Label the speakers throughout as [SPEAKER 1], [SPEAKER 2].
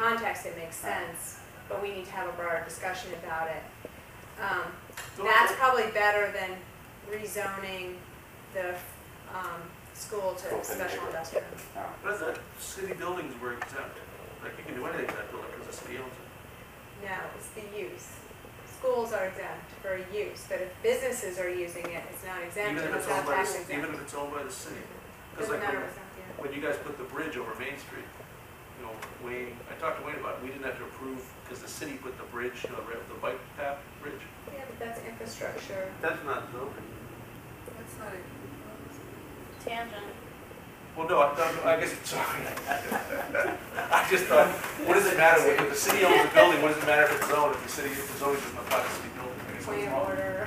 [SPEAKER 1] context, it makes sense, but we need to have a broader discussion about it. Um,
[SPEAKER 2] Don't
[SPEAKER 1] That's
[SPEAKER 2] you-
[SPEAKER 1] probably better than rezoning the, um, school
[SPEAKER 3] Open
[SPEAKER 1] to special
[SPEAKER 3] neighborhood. Oh.
[SPEAKER 1] industrial.
[SPEAKER 2] But I thought city buildings were exempt, like you can do anything to that building because the city owns it.
[SPEAKER 1] No, it's the use. Schools are exempt for use, but if businesses are using it, it's not exempt,
[SPEAKER 2] Even if
[SPEAKER 1] it's
[SPEAKER 2] it's
[SPEAKER 1] not
[SPEAKER 2] owned by,
[SPEAKER 1] tax
[SPEAKER 2] the- even
[SPEAKER 1] exempt.
[SPEAKER 2] if it's owned by the city. Because
[SPEAKER 1] Doesn't
[SPEAKER 2] like
[SPEAKER 1] matter
[SPEAKER 2] when,
[SPEAKER 1] what's not
[SPEAKER 2] when you guys put the bridge over Main Street, you know, Wayne, I talked to Wayne about it, we didn't have to approve because the city put the bridge, you know, the ra- the bike path bridge.
[SPEAKER 1] there. Yeah, but that's infrastructure.
[SPEAKER 2] That's not zoning.
[SPEAKER 1] That's not
[SPEAKER 4] Tangent.
[SPEAKER 2] Well, no, I thought, I guess, sorry. I just thought, what does it matter, if the city owns the building, what does it matter if it's zoned, if the city, if the zoning doesn't apply to city building? I guess
[SPEAKER 1] Point
[SPEAKER 2] that's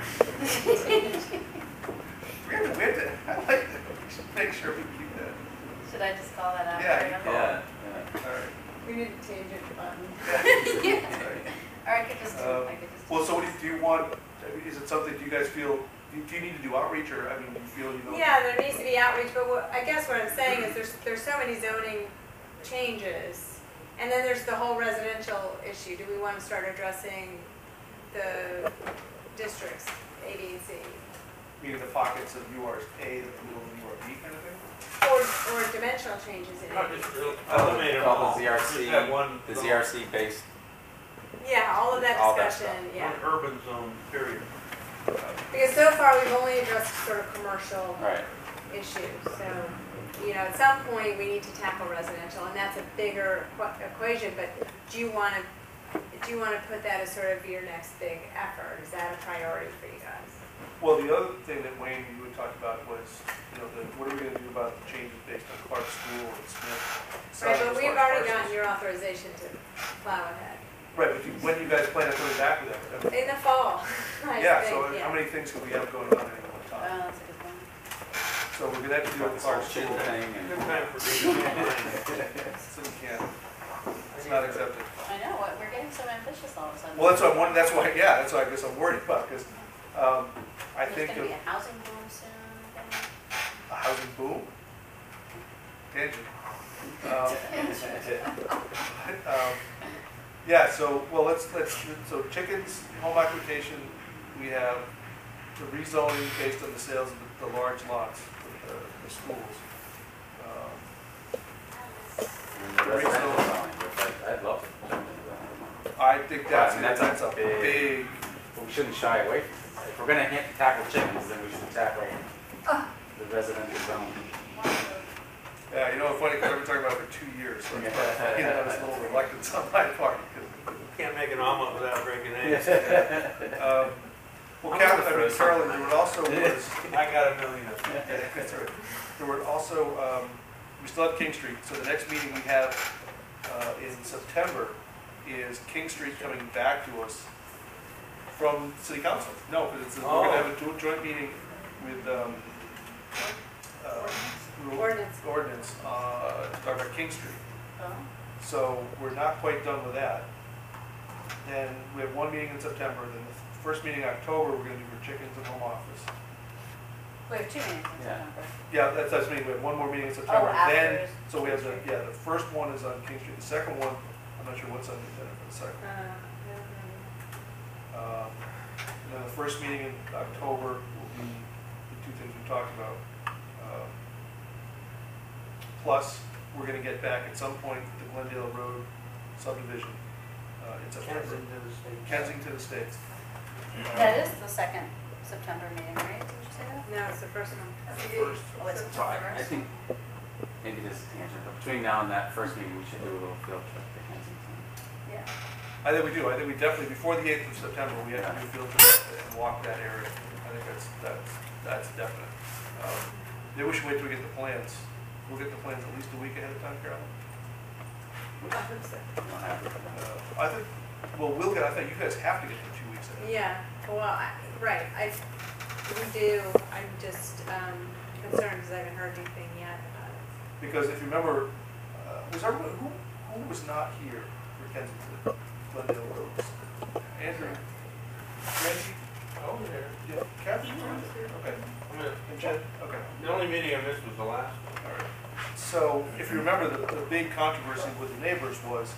[SPEAKER 1] of order.
[SPEAKER 2] wrong. We have to, we have to, I like that, we should make sure we keep that.
[SPEAKER 4] Should I just call that out?
[SPEAKER 2] Yeah,
[SPEAKER 4] right
[SPEAKER 2] you
[SPEAKER 4] now?
[SPEAKER 2] call
[SPEAKER 3] Yeah,
[SPEAKER 2] All right.
[SPEAKER 1] We need to change it button.
[SPEAKER 4] Or I could just,
[SPEAKER 2] Um,
[SPEAKER 4] I could just.
[SPEAKER 2] Well, so what do you, do you want, I mean, is it something, do you guys feel, do do you need to do outreach, or, I mean, do you feel, you know?
[SPEAKER 1] Yeah, there needs to be outreach, but what, I guess what I'm saying is there's, there's so many zoning changes. And then there's the whole residential issue. Do we want to start addressing the districts, A, B, and C?
[SPEAKER 2] Meaning the pockets of URs A, the middle of URB kind of thing?
[SPEAKER 1] Or, or dimensional changes in
[SPEAKER 5] Not
[SPEAKER 1] it?
[SPEAKER 5] just eliminate them
[SPEAKER 3] Call
[SPEAKER 5] all.
[SPEAKER 3] Oh, the
[SPEAKER 5] Just
[SPEAKER 3] ZRC,
[SPEAKER 5] have one.
[SPEAKER 3] the
[SPEAKER 5] little-
[SPEAKER 3] ZRC based,
[SPEAKER 1] Yeah, all of that
[SPEAKER 3] All that
[SPEAKER 1] discussion,
[SPEAKER 5] One
[SPEAKER 1] yeah.
[SPEAKER 5] urban zone, period.
[SPEAKER 1] Because so far, we've only addressed sort of commercial
[SPEAKER 3] right,
[SPEAKER 1] issues, so, you know, at some point, we need to tackle residential, and that's a bigger equ- equation, but do you want to, do you want to put that as sort of your next big effort? Is that a priority for you guys?
[SPEAKER 2] Well, the other thing that Wayne, you had talked about was, you know, the, what are we gonna do about the changes based on Clark School and Smith?
[SPEAKER 1] Right,
[SPEAKER 2] size of
[SPEAKER 1] but we've
[SPEAKER 2] large
[SPEAKER 1] already gotten
[SPEAKER 2] parcels?
[SPEAKER 1] your authorization to plow ahead,
[SPEAKER 2] Right, but you- when do you guys plan on coming back with that?
[SPEAKER 1] in the fall, I
[SPEAKER 2] Yeah, so
[SPEAKER 1] think,
[SPEAKER 2] how
[SPEAKER 1] yeah.
[SPEAKER 2] many things could we have going on at any one
[SPEAKER 4] Oh,
[SPEAKER 2] time?
[SPEAKER 4] that's a good one.
[SPEAKER 2] So we're gonna have to do
[SPEAKER 3] this whole
[SPEAKER 2] Clark
[SPEAKER 3] chin
[SPEAKER 2] School.
[SPEAKER 3] thing
[SPEAKER 5] Good
[SPEAKER 3] and.
[SPEAKER 5] time for me to get mine.
[SPEAKER 2] So we can't, it's not accepted.
[SPEAKER 4] I know, what, we're getting so ambitious all of a sudden.
[SPEAKER 2] Well, that's what I'm wondering, that's why, yeah, that's why I guess I'm worried about, because, um, I
[SPEAKER 4] There's
[SPEAKER 2] think
[SPEAKER 4] gonna
[SPEAKER 2] of
[SPEAKER 4] be a housing boom soon. I think.
[SPEAKER 2] a housing boom. Tangent. Um, um, Yeah, so, well, let's, let's, so chickens, home occupation, we have the rezoning based on the sales of the- the large lots, the, the schools. Um,
[SPEAKER 3] and the residential zoning, which I- I'd love to jump into that.
[SPEAKER 2] I think that's,
[SPEAKER 3] Wow, and that's a
[SPEAKER 2] that's a
[SPEAKER 3] big-
[SPEAKER 2] big,
[SPEAKER 3] But we shouldn't shy away from it. If we're gonna hit- tackle chickens, then we should tackle the residential zone.
[SPEAKER 2] yeah, you know, funny, because I've been talking about it for two years, so, it's probably- you know, it's a little reluctance on my part. Um, 'cause-
[SPEAKER 5] Can't make an omelet without breaking eggs.
[SPEAKER 2] Um, Well,
[SPEAKER 5] I'm
[SPEAKER 2] Carolyn,
[SPEAKER 5] gonna
[SPEAKER 2] I mean,
[SPEAKER 5] throw
[SPEAKER 2] Carolyn,
[SPEAKER 5] something.
[SPEAKER 2] there were also was,
[SPEAKER 5] I got a million of them.
[SPEAKER 2] there were also, um, we still have King Street, so the next meeting we have, uh, in September is King Street coming back to us from city council. No, but it's, we're gonna have a jo- joint meeting with, um, uh, rural
[SPEAKER 1] Ordinance,
[SPEAKER 2] ordinance, uh, to talk about King Street.
[SPEAKER 4] Oh.
[SPEAKER 2] So we're not quite done with that. Then we have one meeting in September, then the first meeting in October, we're gonna do for chickens and home office.
[SPEAKER 4] We have two meetings
[SPEAKER 3] Yeah.
[SPEAKER 4] in September.
[SPEAKER 2] Yeah, that's, that's meeting, we have one more meeting in September.
[SPEAKER 4] after
[SPEAKER 2] Then,
[SPEAKER 4] is-
[SPEAKER 2] so we have the, yeah, the first one is on King Street, the second one, I'm not sure what's on the agenda for the second.
[SPEAKER 1] uh, no,
[SPEAKER 2] Um, and Then the first meeting in October will be the two things we talked about. Um, Plus, we're gonna get back at some point the Glendale Road subdivision uh, in September. Kensington Estates.
[SPEAKER 4] That is the second September meeting, right? Did you say that?
[SPEAKER 1] no. No, it's the first one.
[SPEAKER 2] First.
[SPEAKER 4] Oh, it's
[SPEAKER 3] So I,
[SPEAKER 4] September.
[SPEAKER 3] I think maybe this is tangent, but between now and that first meeting, we should do a little field trip to Kensington.
[SPEAKER 4] Yeah.
[SPEAKER 2] I think we do, I think we definitely, before the eighth of September, we have to do field trips and walk that area. I think that's, that's, that's definite. Um, Maybe we should wait till we get the plans. We'll get the plans at least a week ahead of time, Carolyn.
[SPEAKER 1] I hope so.
[SPEAKER 3] We don't have it for that.
[SPEAKER 2] Uh, I think, well, we'll get, I think you guys have to get it two weeks ahead.
[SPEAKER 1] Yeah, well, I, right, I, we do, I'm just, um, concerned because I haven't heard anything yet about it.
[SPEAKER 2] Because if you remember, uh, was everyone, who, who was not here for Kensington, Glendale Roads? Andrew? Reggie?
[SPEAKER 5] Oh, there.
[SPEAKER 2] Yeah, Kathy? Okay.
[SPEAKER 5] I mean,
[SPEAKER 2] And Jen? Okay.
[SPEAKER 5] The only meeting I missed was the last one.
[SPEAKER 2] So, if you remember, the, the big controversy with the neighbors was,